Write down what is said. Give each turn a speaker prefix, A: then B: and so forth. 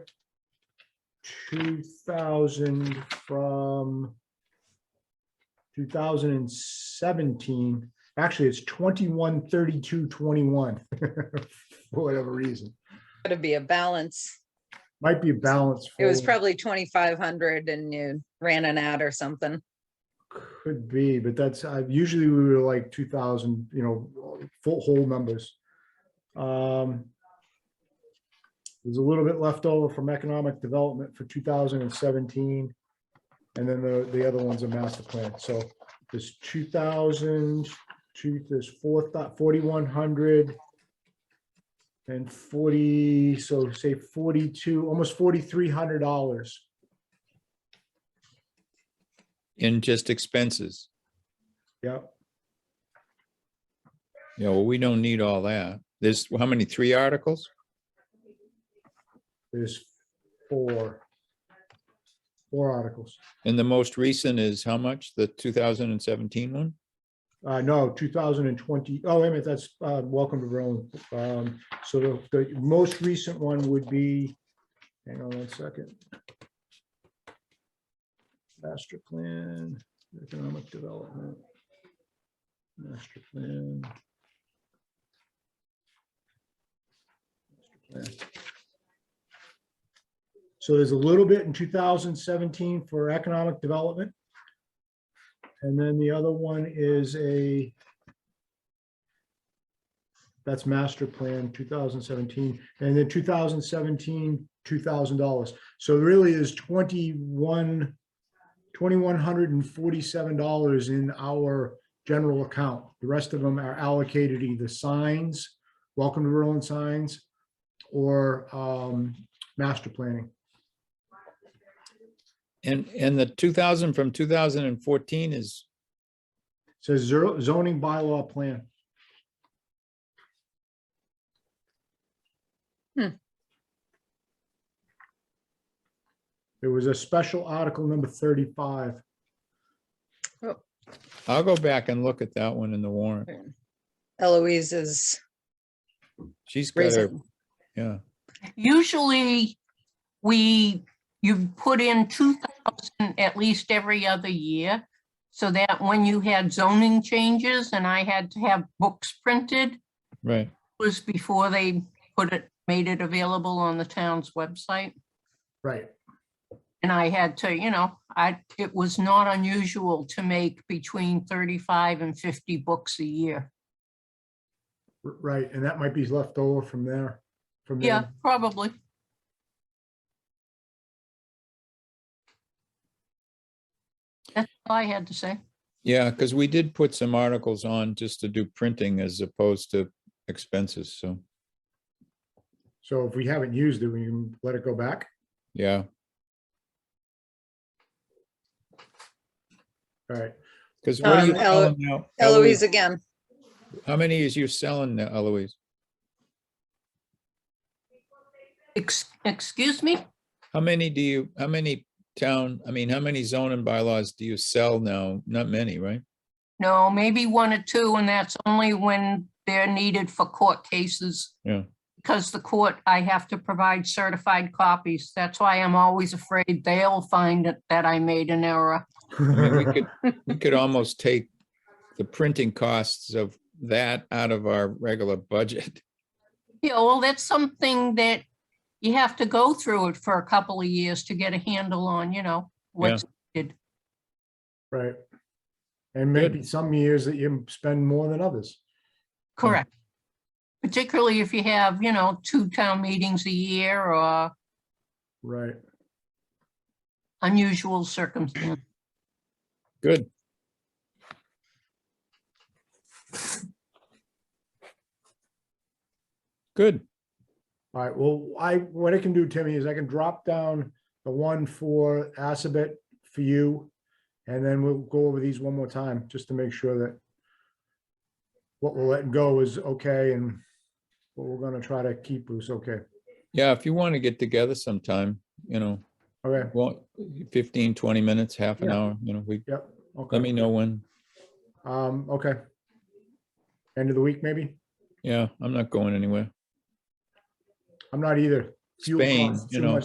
A: two thousand from two thousand and seventeen. Actually, it's twenty-one thirty-two twenty-one, for whatever reason.
B: Gotta be a balance.
A: Might be a balance.
B: It was
A: forward.
B: probably twenty-five hundred and you ran an ad or something.
A: Could be, but that's, I, usually we were like two thousand, you know, full, whole numbers. Um. There's a little bit left over from economic development for two thousand and seventeen. And then the, the other one's a master plan, so there's two thousand, two, there's four, forty-one hundred. And forty, so say forty-two, almost forty-three hundred dollars.
C: in just expenses.
A: Yep.
C: You know, we don't need all that. There's, how many, three articles?
A: There's four. Four articles.
C: And the most recent is how much? The 2017 one?
A: Uh, no, 2020, oh, wait a minute, that's, uh, welcome to Rome. Um, so the, the most recent one would be, hang on one second. Master plan, economic development. Master plan. Master plan. So there's a little bit in 2017 for economic development. And then the other one is a that's master plan 2017, and then 2017, $2,000. So really is 21, $2,147 in our general account. The rest of them are allocated either signs, welcome to Berlin signs, or um, master planning.
C: And, and the 2000 from 2014 is,
A: Says zero zoning bylaw plan.
B: Hmm.
A: There was a special article number thirty-five.
C: I'll go back and look at that one in the warrant.
B: Eloise is
C: She's got her,
B: raising.
C: yeah.
D: Usually, we, you put in two thousand at least every other year. So that when you had zoning changes and I had to have books printed,
C: Right.
D: was before they put it, made it available on the town's website.
A: Right.
D: And I had to, you know, I, it was not unusual to make between thirty-five and fifty books a year.
A: r- Right, and that might be left over from there, from
D: Yeah,
A: there.
D: probably. That's all I had to say.
C: Yeah, because we did put some articles on just to do printing as opposed to expenses. So,
A: So if we haven't used it, we can let it go back.
C: yeah,
A: All right,
C: because what are
B: Um,
C: you
B: Elo-
C: selling now?
B: Eloise again.
C: How many is you selling now, Eloise?
D: Ex- Excuse me?
C: How many do you, how many town, I mean, how many zoning bylaws do you sell now? Not many, right?
D: No, maybe one or two, and that's only when they're needed for court cases.
C: Yeah.
D: Because the court, I have to provide certified copies. That's why I'm always afraid they'll find that- that I made an error.
C: I mean, We could we could almost take the printing costs of that out of our regular budget.
D: Yeah, well, that's something that you have to go through it for a couple of years to get a handle on, you know, what's
A: right. And maybe some years that you spend more than others.
D: correct. Particularly if you have, you know, two town meetings a year or
A: Right,
D: unusual circumstances.
C: Good. Good.
A: all right, well, I, what I can do, Timmy, is I can drop down the one for Assabet for you. And then we'll go over these one more time, just to make sure that what we're letting go is okay and what we're gonna try to keep is okay.
C: Yeah, if you want to get together sometime, you know,
A: Okay,
C: well, 15, 20 minutes, half an
A: Yeah.
C: hour, you know, we,
A: yep,
C: let
A: okay,
C: me know when.
A: um, okay. End of the week, maybe?
C: Yeah, I'm not going anywhere.
A: I'm not either. Fuel
C: Spain,
A: costs
C: you
A: too
C: know,
A: much.